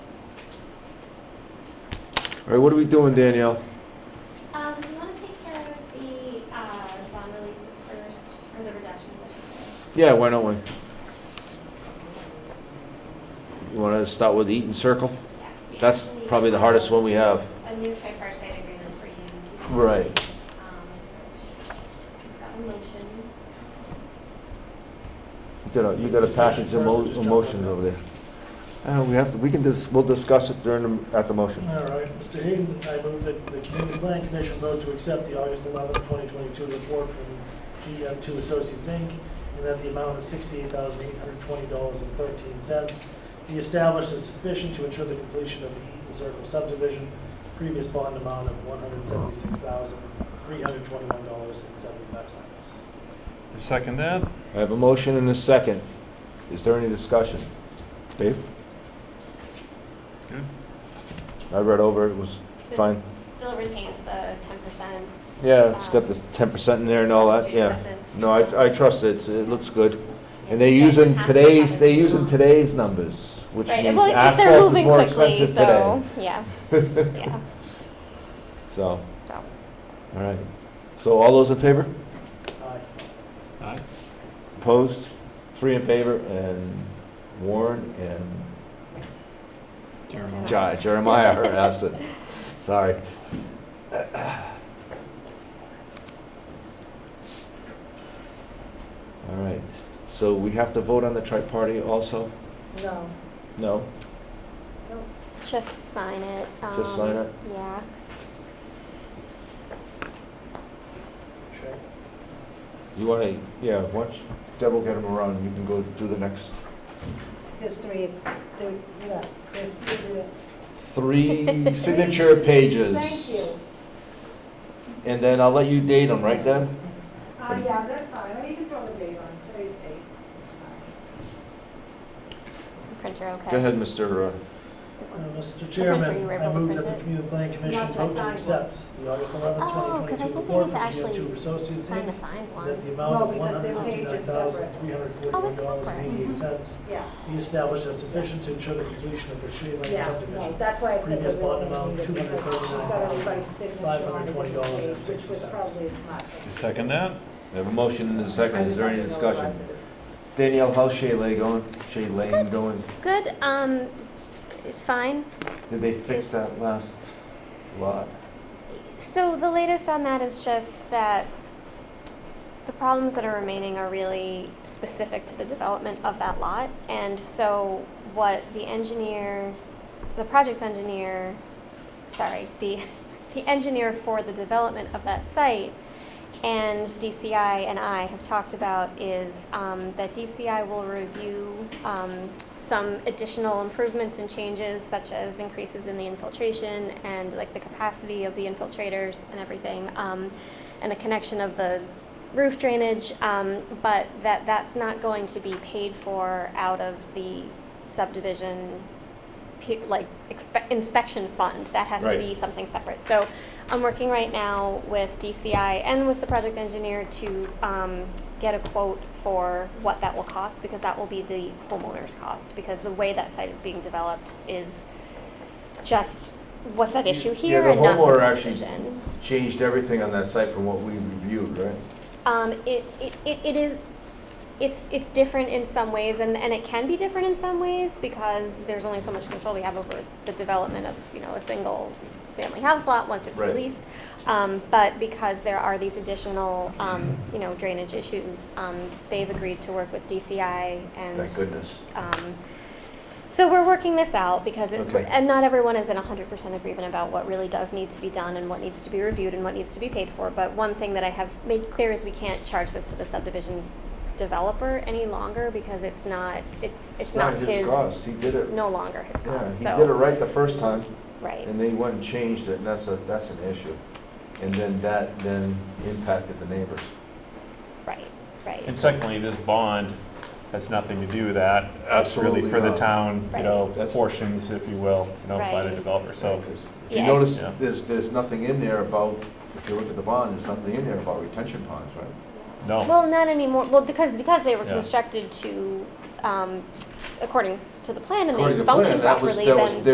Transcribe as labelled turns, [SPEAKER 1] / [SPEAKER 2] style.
[SPEAKER 1] All right, what are we doing, Danielle?
[SPEAKER 2] Um, do you want to take care of the, uh, bond releases first, or the reductions, I should
[SPEAKER 1] Yeah, why don't we? You want to start with Eaton Circle?
[SPEAKER 2] say? Yes, we
[SPEAKER 1] That's
[SPEAKER 2] actually
[SPEAKER 1] probably the hardest
[SPEAKER 2] have
[SPEAKER 1] one we have.
[SPEAKER 2] A new tripartite agreement for you to. sign.
[SPEAKER 1] Right.
[SPEAKER 2] Um, so, we've got a motion.
[SPEAKER 1] You got a, you got a package of mo-
[SPEAKER 3] First, just jump
[SPEAKER 1] emotions
[SPEAKER 3] on
[SPEAKER 1] over there. Uh, we have to, we can just, we'll discuss it during, the- at the motion.
[SPEAKER 3] All right, Mr. Hayden, I move that the Community Plan Commission vote to accept the August 11, 2022 report from GM2 Associates, Inc., and that the amount of $68,820.13 be established as sufficient to ensure the completion of the Eaton Circle subdivision, previous bond amount of $176,321.75.
[SPEAKER 4] I second that.
[SPEAKER 1] I have a motion and a second. Is there any discussion? Dave?
[SPEAKER 4] Good.
[SPEAKER 1] I read over, it was
[SPEAKER 2] This
[SPEAKER 1] fine.
[SPEAKER 2] Still retains the ten percent.
[SPEAKER 1] Yeah, it's got the ten percent in there and all that, yeah. No, I, I trust it, it looks good. And they're using today's, they're using today's numbers, which
[SPEAKER 2] Right,
[SPEAKER 1] means
[SPEAKER 2] well, it's- they're
[SPEAKER 1] asphalt is
[SPEAKER 2] moving
[SPEAKER 1] more
[SPEAKER 2] quickly,
[SPEAKER 1] expensive today.
[SPEAKER 2] so, Yeah, yeah,
[SPEAKER 1] So, all
[SPEAKER 2] so.
[SPEAKER 1] right. So all those in favor?
[SPEAKER 3] Aye.
[SPEAKER 4] Aye.
[SPEAKER 1] Opposed? Three in favor and Warren and
[SPEAKER 4] Jeremiah.
[SPEAKER 1] Jer- Jeremiah are absent. Sorry. All right, so we have to vote on the tri-party also?
[SPEAKER 5] No.
[SPEAKER 1] No?
[SPEAKER 2] Just sign it.
[SPEAKER 1] Just sign
[SPEAKER 2] um,
[SPEAKER 1] it?
[SPEAKER 2] Yeah. 'cause
[SPEAKER 3] Check.
[SPEAKER 1] You want to, yeah, watch Deb will get him around, and you can go do the next
[SPEAKER 5] There's three, there, yeah, there's three there.
[SPEAKER 1] three signature pages.
[SPEAKER 5] Thank you.
[SPEAKER 1] And then I'll let you date them, right, Deb?
[SPEAKER 5] Uh, yeah, that's fine, or you can throw the date on, Thursday, it's fine.
[SPEAKER 2] Printer, okay.
[SPEAKER 1] Go ahead, Mr. uh,
[SPEAKER 3] Uh, Mr.
[SPEAKER 2] you
[SPEAKER 3] Chairman,
[SPEAKER 2] were
[SPEAKER 3] I
[SPEAKER 2] able to
[SPEAKER 3] move that
[SPEAKER 2] print
[SPEAKER 3] the
[SPEAKER 2] it?
[SPEAKER 3] Community Plan Commission
[SPEAKER 5] Not to
[SPEAKER 3] vote to
[SPEAKER 5] sign.
[SPEAKER 3] accept the August 11,
[SPEAKER 2] Oh, 'cause I
[SPEAKER 3] 2022
[SPEAKER 2] think
[SPEAKER 3] report
[SPEAKER 2] it was
[SPEAKER 3] from
[SPEAKER 2] actually
[SPEAKER 3] GM2 Associates,
[SPEAKER 2] Sign a
[SPEAKER 3] Inc.,
[SPEAKER 2] signed
[SPEAKER 3] and that
[SPEAKER 2] one.
[SPEAKER 3] the amount of
[SPEAKER 5] No, because their page is separate.
[SPEAKER 3] $159,341.88
[SPEAKER 5] Yeah,
[SPEAKER 3] be established as sufficient to ensure the completion of the Shea Lane
[SPEAKER 5] yeah, no,
[SPEAKER 3] subdivision.
[SPEAKER 5] that's why I said
[SPEAKER 3] Previous
[SPEAKER 5] that we
[SPEAKER 3] bond
[SPEAKER 5] only
[SPEAKER 3] amount,
[SPEAKER 5] needed, because she's got everybody's signature on it, which was
[SPEAKER 3] $239,520.60.
[SPEAKER 5] probably a smart thing.
[SPEAKER 4] I second that.
[SPEAKER 1] I have a motion and a second,
[SPEAKER 5] I
[SPEAKER 1] is
[SPEAKER 5] just
[SPEAKER 1] there
[SPEAKER 5] have
[SPEAKER 1] any
[SPEAKER 5] to know
[SPEAKER 1] discussion?
[SPEAKER 5] lots of it.
[SPEAKER 1] Danielle, how's Shay Lane going? Shay Lane going?
[SPEAKER 2] Good, um, fine.
[SPEAKER 1] Did they fix that last lot?
[SPEAKER 2] So the latest on that is just that the problems that are remaining are really specific to the development of that lot. And so what the engineer, the project engineer, sorry, the, the engineer for the development of that site and DCI and I have talked about is um, that DCI will review um, some additional improvements and changes, such as increases in the infiltration and like the capacity of the infiltrators and everything, um, and the connection of the roof drainage. Um, but that that's not going to be paid for out of the subdivision pe- like expe- inspection fund. That has to
[SPEAKER 1] Right.
[SPEAKER 2] be something separate. So I'm working right now with DCI and with the project engineer to um, get a quote for what that will cost because that will be the homeowner's cost because the way that site is being developed is just what's at issue
[SPEAKER 1] Yeah,
[SPEAKER 2] here
[SPEAKER 1] the
[SPEAKER 2] and not the
[SPEAKER 1] homeowner actually-
[SPEAKER 2] subdivision.
[SPEAKER 1] Changed everything on that site from what we reviewed, right?
[SPEAKER 2] Um, it, it, it it is, it's, it's different in some ways, and, and it can be different in some ways, because there's only so much control we have over the development of, you know, a single family house lot once it's
[SPEAKER 1] Right.
[SPEAKER 2] released. Um, but because there are these additional, um, you know, drainage issues, um, they've agreed to work with DCI and
[SPEAKER 1] Thank goodness.
[SPEAKER 2] um, so we're working this out because, it,
[SPEAKER 1] Okay.
[SPEAKER 2] and not everyone is in 100% agreement about what really does need to be done and what needs to be reviewed and what needs to be paid for. But one thing that I have made clear is we can't charge this to the subdivision developer any longer because it's not, it's, it's,
[SPEAKER 1] It's not his cost. He did
[SPEAKER 2] it's
[SPEAKER 1] it-
[SPEAKER 2] no longer his
[SPEAKER 1] Yeah,
[SPEAKER 2] cost.
[SPEAKER 1] he
[SPEAKER 2] so,
[SPEAKER 1] did it right the first time,
[SPEAKER 2] right.
[SPEAKER 1] and they went and changed it, and that's a, that's an issue. And then that then impacted the neighbors.
[SPEAKER 2] Right. Right.
[SPEAKER 4] And secondly, this bond has nothing to do with that. It's
[SPEAKER 1] Absolutely
[SPEAKER 4] really for the
[SPEAKER 1] not.
[SPEAKER 4] town, you know,
[SPEAKER 2] Right.
[SPEAKER 1] That's-
[SPEAKER 4] portions, if you will, you know, by the
[SPEAKER 2] Right.
[SPEAKER 4] developer, so.
[SPEAKER 1] Because If you
[SPEAKER 2] Yeah.
[SPEAKER 1] notice,
[SPEAKER 4] Yeah.
[SPEAKER 1] there's, there's nothing in there about, if you look at the bond, there's nothing in there about retention ponds, right?
[SPEAKER 4] No,
[SPEAKER 2] Well, not anymore. Well, because because they were
[SPEAKER 4] Yeah.
[SPEAKER 2] constructed to, um, according to the plan, and
[SPEAKER 1] According to
[SPEAKER 2] they
[SPEAKER 1] plan,
[SPEAKER 2] functioned
[SPEAKER 1] that was-
[SPEAKER 2] properly.
[SPEAKER 1] that was-
[SPEAKER 2] then
[SPEAKER 1] they